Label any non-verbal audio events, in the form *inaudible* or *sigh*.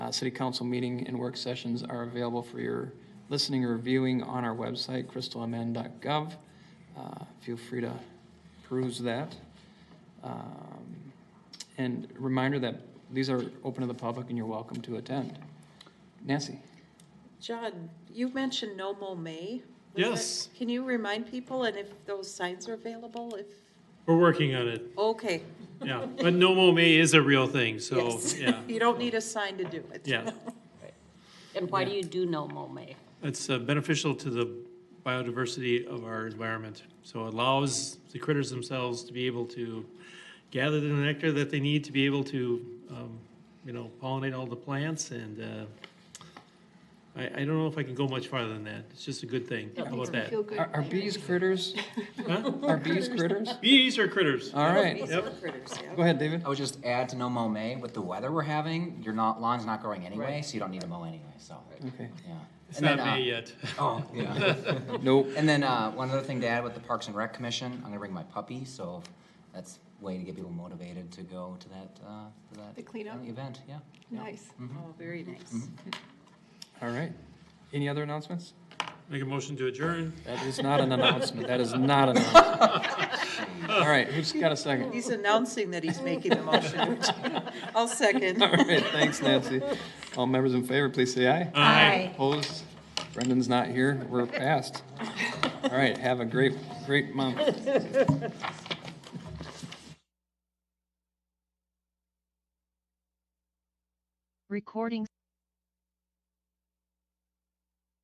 uh, city council meeting and work sessions are available for your listening or viewing on our website, crystalmn.gov. Uh, Feel free to peruse that. Um, And reminder that these are open to the public and you're welcome to attend. Nancy? John, you mentioned no mow May. Was that- Yes. Can you remind people and if those signs are available, if, We're working on it, okay, yeah. But No Mo May is a real thing, so, yes. yeah, *laughs* You don't need a sign to do it. yeah. And why do you do no mow May? It's uh, beneficial to the biodiversity of our environment. So it allows the critters themselves to be able to gather the nectar that they need to be able to, um, you know, pollinate all the plants and, uh, I, I don't know if I can go much farther than that. It's just a good thing. How about that? Are are bees critters? Huh? Are bees critters? Bees are critters. All right. These are critters, yeah. Go ahead, David. I would just add to no mow May, with the weather we're having, your not, lawn's not growing anyway, so you don't need to mow anyway, so, Okay. yeah. It's And then, not May uh, yet. *laughs* Oh, yeah. Nope. And then, uh, one other thing to add with the Parks and Rec Commission, I'm gonna bring my puppy, so that's a way to get people motivated to go to that, uh, to that. The cleanup? Event, yeah. Nice. Oh, very nice. All right. Any other announcements? Make a motion to adjourn. That is not an announcement. That is not an announcement. All right, who's got a second? He's announcing that he's making the *laughs* motion. I'll *laughs* second. All right, thanks, Nancy. All members in favor, please say aye. Opposed? Brendan's not here. We're passed. All right, have a great, great month. Recording